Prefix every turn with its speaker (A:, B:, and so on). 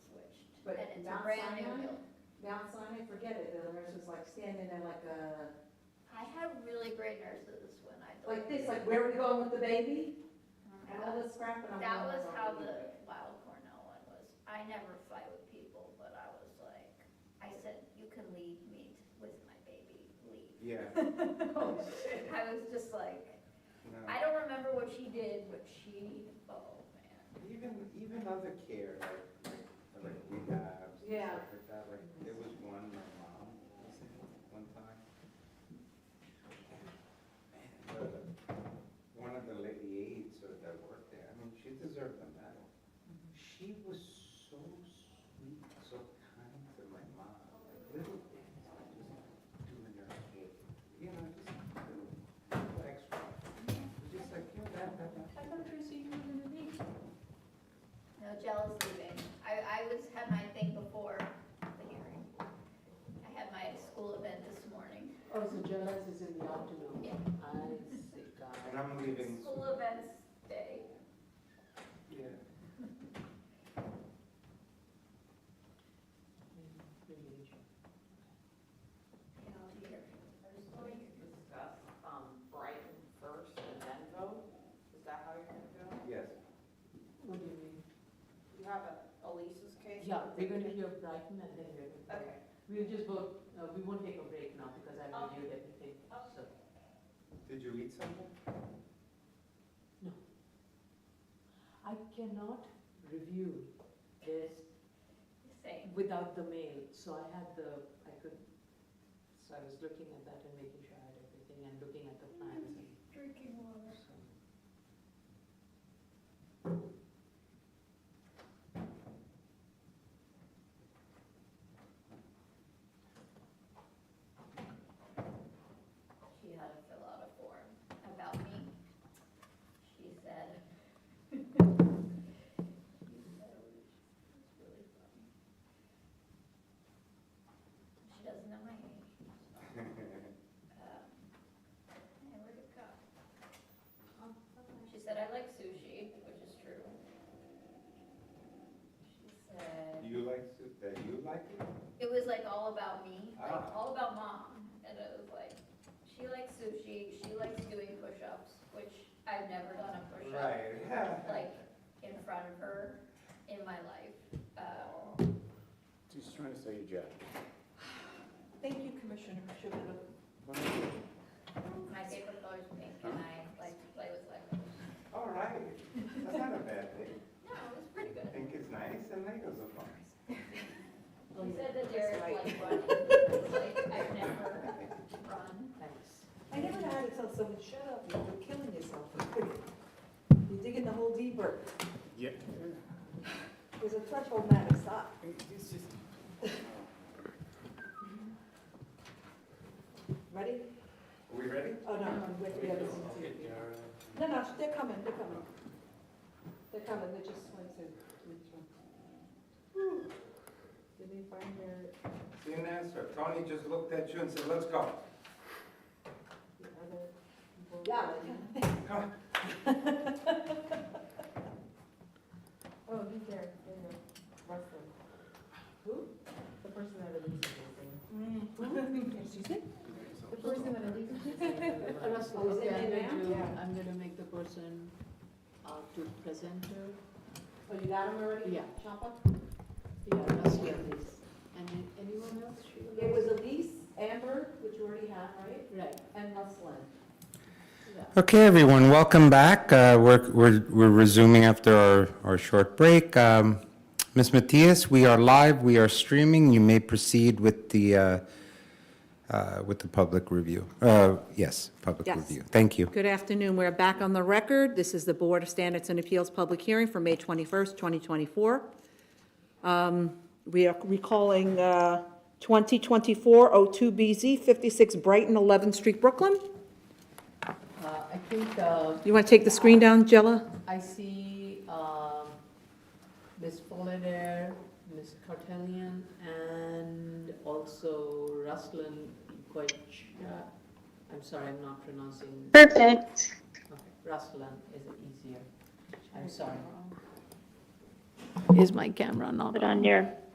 A: It's a
B: Mount
A: brand new
B: Sinai?
A: building.
B: Mount Sinai, forget it, the nurse was like standing there like a,
A: I had really great nurses when I.
B: like this, like where are we going with the baby? And all
A: That
B: this crap, and I'm. going,
A: was
B: "Oh,
A: how
B: baby."
A: the Wild Cornell one was. I never fight with people, but I was like, I said, you can leave me with my baby, leave.
C: Yeah.
B: Oh, shit.
A: I was just like,
C: no.
A: I don't remember what she did, but she, oh man.
C: Even, even other care, like, like, like rehabs and
B: Yeah.
C: stuff like that, like, there was one, my mom, was in one time. And the- One of the lady aides or that worked there, I mean, she deserved a medal. She was so sweet, so kind to my mom, like little things, like just doing her hair, you know, just little extra. Just like, you know, that, that, that.
B: I thought you said you were gonna be.
A: No jealous leaving. I, I was, had my thing before the hearing. I had my school event this morning.
B: Oh, so Jonas is in the afternoon?
A: Yeah.
B: I see, God.
C: And I'm leaving.
A: School events day.
C: Yeah.
A: And I'll be here.
D: Let
A: There's three
D: me
A: here.
D: discuss um, Brighton first and then vote. Is that how you're gonna do it?
C: Yes.
E: What do you mean?
D: You have a- Elise's case?
E: Yeah, they're gonna hear Brighton and then we're gonna.
D: Okay.
E: We'll just vote, uh, we won't take a break now because I've reviewed everything, so.
C: Did you eat something?
E: I cannot review this
A: Same.
E: without the mail, so I had the, I could, so I was looking at that and making sure I had everything and looking at the plans.
A: Mm-hmm.
E: and-
A: Drinking water. She had to fill out a form about me. She said. She said it was- it's really funny. She doesn't know my age. Um, Hey, where'd it go? She said, I like sushi, which is true. She said,
C: You like soup? That you like it?
A: it was like all about me, like
C: Ah.
A: all about mom. And it was like, she likes sushi, she likes doing push-ups, which I've never done a push-up,
C: Right.
A: like in front of her in my life. Um,
F: She's trying to say you jack.
E: Thank you, Commissioner Shapiro.
A: My favorite color is pink and I like to play with Legos.
C: All right. That's not a bad thing.
A: No, it was pretty
C: I
A: good.
C: think it's nice and Legos are fun.
A: He said that
E: That's
A: Derek
E: right.
A: like running, like I've never run.
E: Thanks.
B: I never know how to tell someone, shut up, you're killing yourself. You're digging the hole deeper.
F: Yeah.
B: There's a threshold matter, stop.
F: It's just.
B: Ready?
C: Are we ready?
B: Oh, no, no, wait, we have this one too. No, no, they're coming, they're coming. They're coming, they just went to. which one? Whew. Did they find their,
C: See an answer. Tony just looked at you and said, let's go.
B: the other? Yeah. they-
C: Come on.
B: Oh, he's there, there you go. Russell. Who? The person that Elise is dating. Excuse me? The person that Elise is
E: Russell,
B: Oh, is it
E: okay, I'm
B: in
E: going
B: there?
E: to,
B: Yeah.
E: I'm gonna make the person, uh, to presenter.
B: So you got him already?
E: Yeah.
B: Chopper?
E: Yeah, Russell, please. And then anyone else? Sheila?
B: It was Elise, Amber, which you already have, right?
E: Right,
B: And Ruslan.
E: yeah.
C: Okay, everyone, welcome back. Uh, We're we're we're resuming after our our short break. Um, Ms. Matias, we are live, we are streaming. You may proceed with the, uh, uh, with the public review. Uh, Yes, public
G: Yes.
C: review. Thank you.
G: Good afternoon. We're back on the record. This is the Board of Standards and Appeals public hearing for May 21st, 2024. Um, We are recalling uh, 2024-02BZ, 56 Brighton, 11th Street, Brooklyn.
E: Uh, I think, uh,
G: You want to take the screen down, Jella?
E: I see um, Ms. Folladair, Ms. Cartelian, and also Ruslan Ikwich. uh, I'm sorry, I'm not pronouncing. Perfect. Okay, Ruslan is easier. I'm sorry. Is my camera not on?
H: Put on your